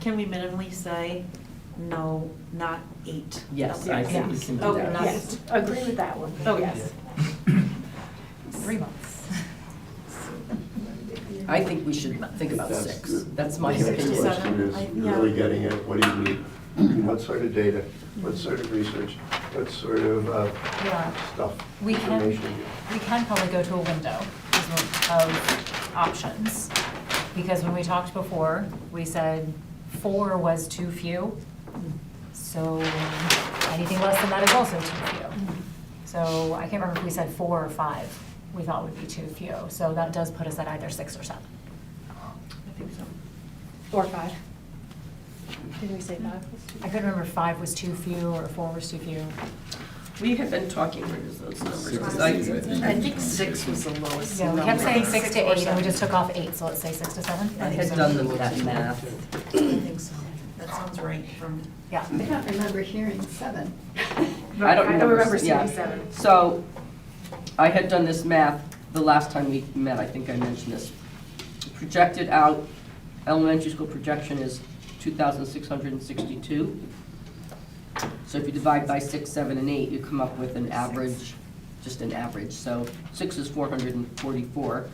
Can we minimally say, no, not eight? Yes, I think we can do Oh, that. not Yes, eight. agree with that one, Oh, yes. Three months. I think we should think about That's six. the- That's my the next opinion. Sixty-seven. question I- is yeah. really getting at, what do you need? I mean, What sort of data, what sort of research, what sort of uh, Yeah. stuff, We can- information? we can probably go to a window of- of options. Because when we talked before, we said four was too few. So anything less than that is also too few. Mm-hmm. So I can't remember if we said four or five we thought would be too few. So that does put us at either six or seven. I think so. Or five. Didn't we say five? I couldn't remember if five was too few or four was too few. We have been talking through those numbers, Six. 'cause I, I think six was the lowest Yeah, number. we kept saying six to or eight and we seven. just took off eight, so let's say six to seven. I think had so. done the- that math. I think so. That sounds right from. Yeah. I don't remember hearing seven. I don't remember. yeah. seeing seven. So, I had done this math the last time we met, I think I mentioned this. Projected out, elementary school projection is two thousand six hundred and sixty-two. So if you divide by six, seven, and eight, you come up with an average, just an average. So six is four hundred and forty-four,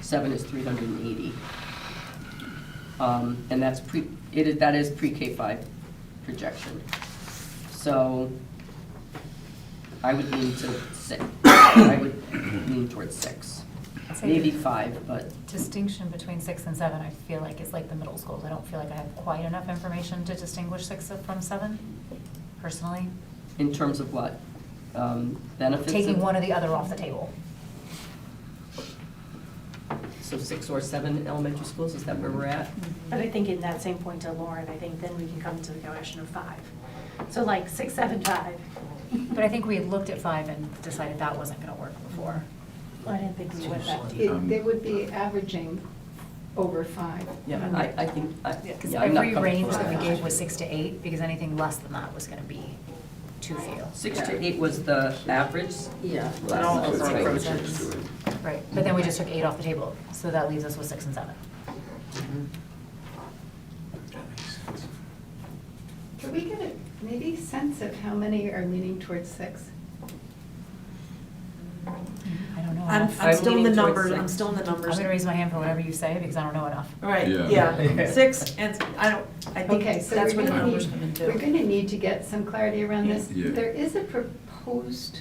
seven is three hundred and eighty. Um, and that's pre, it is, that is pre-K five projection. So I would lean to six. I would lean towards six. Say- Maybe five, but distinction between six and seven, I feel like is like the middle schools. I don't feel like I have quite enough information to distinguish six from seven, personally. in terms of what? Um, Benefits? Taking of- one or the other off the table. So six or seven elementary schools, is that where we're at? But I think in that same point to Lauren, I think then we can come to the question of five. So like six, seven, five. But I think we had looked at five and decided that wasn't gonna work before. I didn't think we went that deep. Um, It- They would be averaging over five. Um, Yeah, I, I think, I, Because yeah, I'm not Mm-hmm. comfortable every range with that we that. gave was six to eight, because anything less than that was gonna be too few. Six to eight was the average? Yeah. and Last all time. those Right. numbers. Right, but then we just took eight off the table, so that leaves us with six and seven. Could we get a, maybe sense of how many are leaning towards six? I don't know I'm, enough. I'm I'm still in the leaning towards numbers, I'm six. still in the I'm numbers. gonna raise my hand for whatever you say, because I don't know enough. Right, Yeah. yeah, six, and I don't, I Okay, think so that's we're where the gonna numbers need, come in too. we're gonna need to get some clarity around this. Yeah. There is a proposed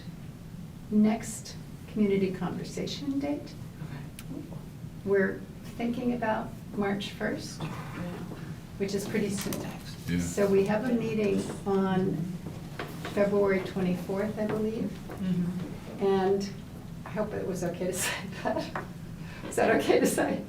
next community conversation date. We're thinking about March first, which is pretty soon. Yeah. So we have a meeting on February twenty-fourth, I believe. Mm-hmm. And I hope it was okay to say that. Is that okay to say?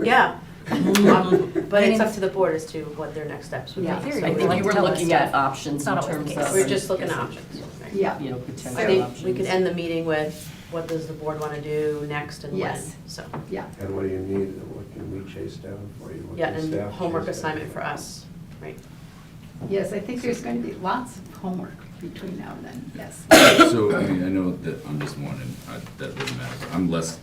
Yeah, Um, but it's up to the board as to what their next steps would be. Yeah. So I Like think you were tell us looking stuff. at options It's in not terms always the of. case. We're just looking at options. right? Yeah. You know, I potential think options. we could end the meeting with, what does the board want to do next and when? Yes. So, Yeah. And what do you need, and what can we chase down for you? What yeah, can and staff homework chase down? assignment for us, right? Yes, I think there's going to be lots of homework between now and then, yes. So, I mean, I know that on this one, and I, that doesn't matter, but I'm less,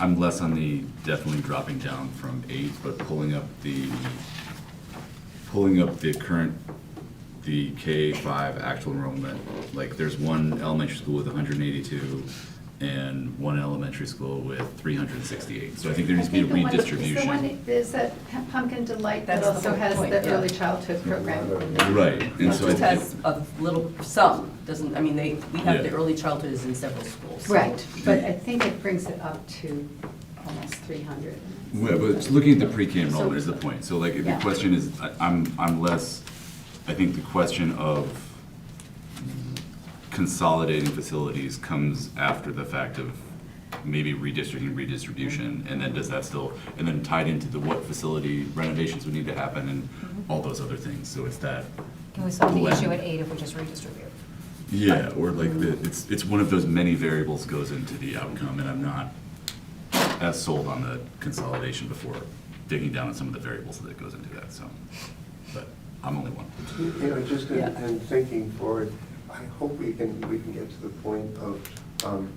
I'm less on the definitely dropping down from eight, but pulling up the, pulling up the current, the K five actual enrollment. Like, there's one elementary school with hundred and eighty-two and one elementary school with three hundred and sixty-eight. So I think there needs to be a I think the one- redistribution. is the one- There's that Pumpkin Delight that That's the also whole has point, the yeah. early childhood program. Right, and It so I just think, has a little, some, doesn't, I mean, they, we have the Yeah. early childhood is in several schools. Right, but I think it brings it up to almost 300. well, but just looking at the pre-K enrollment is the point. So like, the Yeah. question is, I- I'm, I'm less, I think the question of consolidating facilities comes after the fact of maybe redistricting, redistribution, and then does that still, and then tied into the what facility renovations would need to happen and all those other things. So it's that Can we solve the blend. issue at eight if we just redistribute? Yeah, or like the, it's, it's one of those many variables goes into the outcome, and I'm not as sold on the consolidation before digging down on some of the variables that goes into that, so. But I'm only one. You know, just in, Yeah. in thinking forward, I hope we can, we can get to the point of, um,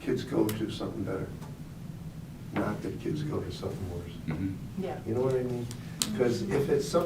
kids go to something better. Not that kids go to something worse. Mhm. Yeah. You know what I mean? Because if it's something